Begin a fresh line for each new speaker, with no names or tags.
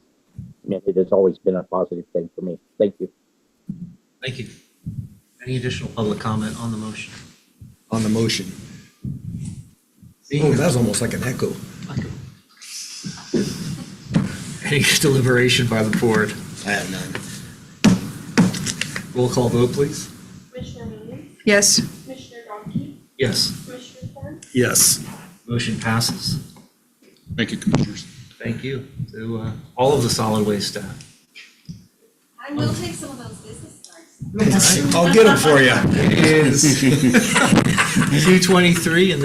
mean, it has always been a positive thing for me. Thank you.
Thank you. Any additional public comment on the motion?
on the motion. Oh,
Seeing
that
none.
was almost like an echo.
Any deliberation by the board?
I have none.
Roll call vote, please.
Commissioner Meaden,
Yes.
Commissioner Donkey,
Yes.
Commissioner Thorn,
Yes.
Motion passes.
Thank you, Commissioners.
Thank you to uh, all of the solid waste staff.
I will take some of those business cards.
I'll get them for you.
It is 2:23 and